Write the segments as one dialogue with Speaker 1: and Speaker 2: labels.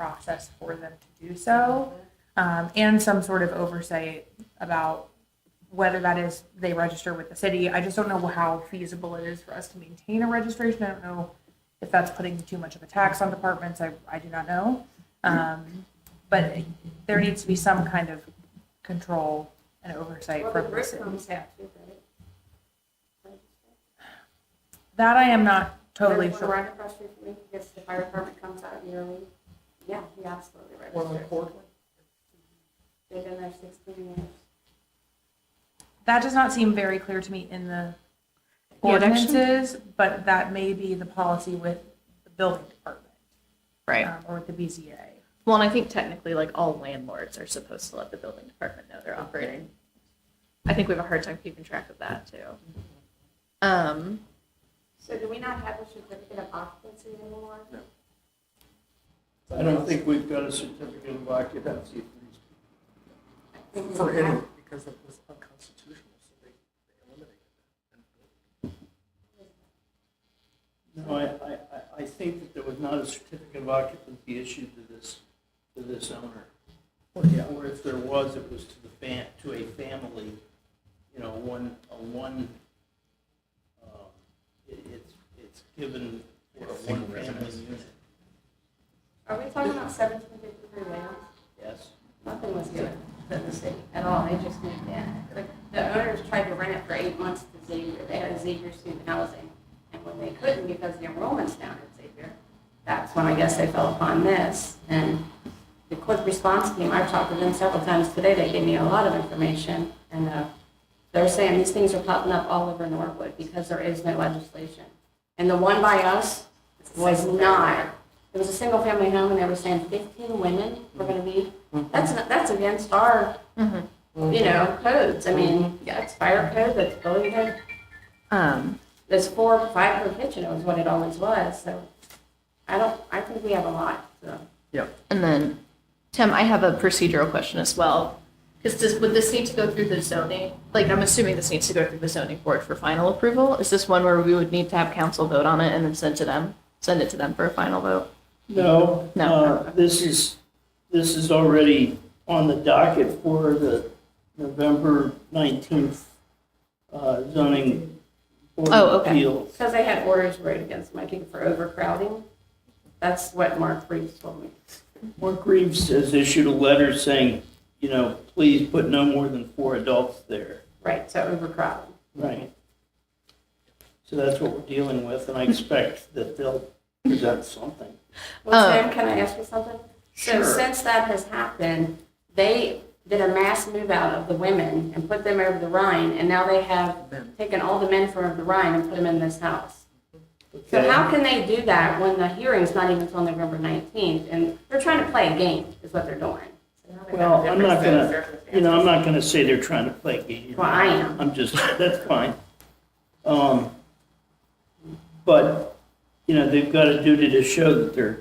Speaker 1: process for them to do so, um, and some sort of oversight about whether that is they register with the city. I just don't know how feasible it is for us to maintain a registration. I don't know if that's putting too much of a tax on departments. I, I do not know. Um, but there needs to be some kind of control and oversight
Speaker 2: Well,
Speaker 1: for
Speaker 2: the
Speaker 1: the
Speaker 2: brick
Speaker 1: city.
Speaker 2: homes have to, right?
Speaker 1: That I am not totally
Speaker 2: There's one
Speaker 1: sure.
Speaker 2: Right across the street from me, because the fire department comes out yearly. Yeah, he absolutely
Speaker 3: One on
Speaker 2: registered.
Speaker 3: Portland?
Speaker 2: They've been there sixteen years.
Speaker 1: That does not seem very clear to me in the
Speaker 4: Yeah, it actually-
Speaker 1: ordinances, but that may be the policy with the building department
Speaker 4: Right.
Speaker 1: um, or with the BZA.
Speaker 4: Well, and I think technically, like, all landlords are supposed to let the building department know they're operating. I think we have a hard time keeping track of that, too. Um,
Speaker 2: So do we not have a certificate of occupancy anymore?
Speaker 5: I don't think we've got a certificate of occupancy
Speaker 2: I think we
Speaker 3: For
Speaker 2: have-
Speaker 3: any, because it was unconstitutional, so they they eliminated
Speaker 5: No, I, I, I- I think that there was not a certificate of occupancy issued to this, to this owner. Or yeah, or if there was, it was to the fam, to a family, you know, one, a one, um, it, it's, it's given for a
Speaker 6: Single
Speaker 5: one-family
Speaker 6: residence.
Speaker 5: unit,
Speaker 2: Are we talking about seventeen fifty-three Wales?
Speaker 5: yes?
Speaker 2: Nothing was good for the city at all, they just moved in. Like, the owners tried to rent it for eight months to Xavier, they had a Xavier student housing. And when they couldn't because the enrollment's down at Xavier, that's when I guess they fell upon this. And the quick response team, I've talked to them several times today, they gave me a lot of information. And uh, they're saying these things are popping up all over Norwood because there is no legislation. And the one by us was not. It was a single-family home, and they were saying 15 women were going to be, that's, not- that's against our,
Speaker 4: Mhm.
Speaker 2: you know, codes. I mean, that's fire code, that's building code.
Speaker 4: um,
Speaker 2: There's four, five per kitchen, was what it always was, so I don't, I think we have a lot, so.
Speaker 4: and then, Tim, I have a procedural question as well. Because does, would this need to go through the zoning? Like, I'm assuming this needs to go through the zoning board for final approval? Is this one where we would need to have council vote on it and then send to them, send it to them for a final vote?
Speaker 5: No.
Speaker 4: No.
Speaker 5: uh, This is, this is already on the docket for the November 19th uh, zoning board
Speaker 4: Oh,
Speaker 5: of
Speaker 4: okay.
Speaker 5: appeals.
Speaker 2: Because they had orders wrote against my king for overcrowding. That's what Mark Reeves told me.
Speaker 5: Mark Reeves has issued a letter saying, you know, please put no more than four adults there.
Speaker 2: Right, so overcrowding.
Speaker 5: Right. So that's what we're dealing with, and I expect that they'll present something.
Speaker 2: Well,
Speaker 4: Oh.
Speaker 2: Sam, can I ask you something? So
Speaker 5: Sure.
Speaker 2: since that has happened, they did a mass move out of the women and put them over the Rhine, and now they have
Speaker 3: Men.
Speaker 2: taken all the men from over the Rhine and put them in this house. So
Speaker 5: Okay?
Speaker 2: how can they do that when the hearing's not even until November 19th, and they're trying to play a game, is what they're doing?
Speaker 5: Well, I'm not gonna, you know, I'm not gonna say they're trying to play games.
Speaker 2: Well, I am.
Speaker 5: I'm just, that's fine. Um, but, you know, they've got a duty to show that they're,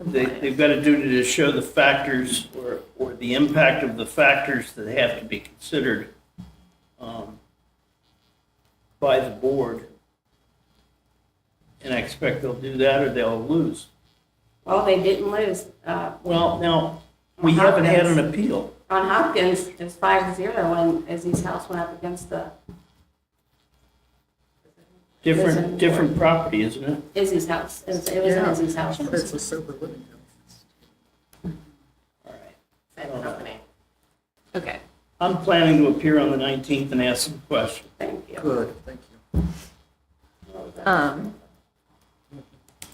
Speaker 5: they, they've got a duty to show the factors or, or the impact of the factors that have to be considered, um, by the board. And I expect they'll do that or they'll lose.
Speaker 2: Well, they didn't lose. Uh,
Speaker 5: Well, now, we haven't had an appeal.
Speaker 2: On Hopkins, it was five to zero when Izzy's house went up against the,
Speaker 5: Different, different property, isn't it?
Speaker 2: Izzy's house. It was it was in
Speaker 3: Yeah.
Speaker 2: Izzy's house.
Speaker 3: it. But it's a sober living house.
Speaker 5: All right.
Speaker 2: Same company.
Speaker 4: Okay.
Speaker 5: I'm planning to appear on the 19th and ask some questions.
Speaker 2: Thank you.
Speaker 3: Good, thank you.
Speaker 4: Um,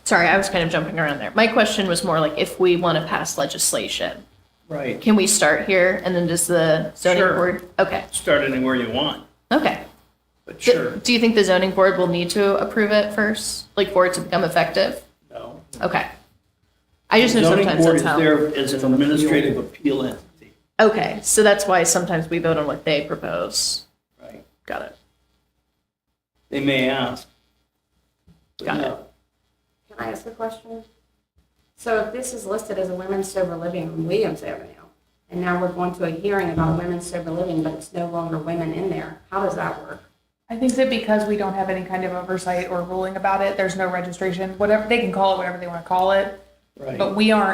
Speaker 4: sorry, I was kind of jumping around there. My question was more like if we want to pass legislation,
Speaker 5: Right.
Speaker 4: can we start here and then does the zoning
Speaker 5: Sure.
Speaker 4: board? Okay,
Speaker 5: Start anywhere you want,
Speaker 4: okay.
Speaker 5: but
Speaker 4: Do-
Speaker 5: sure,
Speaker 4: Do you think the zoning board will need to approve it first, like for it to become effective?
Speaker 5: no.
Speaker 4: Okay. I just know sometimes that's how.
Speaker 5: Zoning board is there as an administrative appeal entity,
Speaker 4: Okay, so that's why sometimes we vote on what they propose.
Speaker 5: right?
Speaker 4: Got it.
Speaker 5: They may ask. but
Speaker 4: Got it.
Speaker 5: no.
Speaker 2: Can I ask a question? So if this is listed as a women's sober living on Williams Avenue, and now we're going to a hearing about women's sober living, but it's no longer women in there, how does that work?
Speaker 1: I think that because we don't have any kind of oversight or ruling about it, there's no registration, whatever, they can call it whatever they want to call it.
Speaker 5: right.
Speaker 1: But we aren't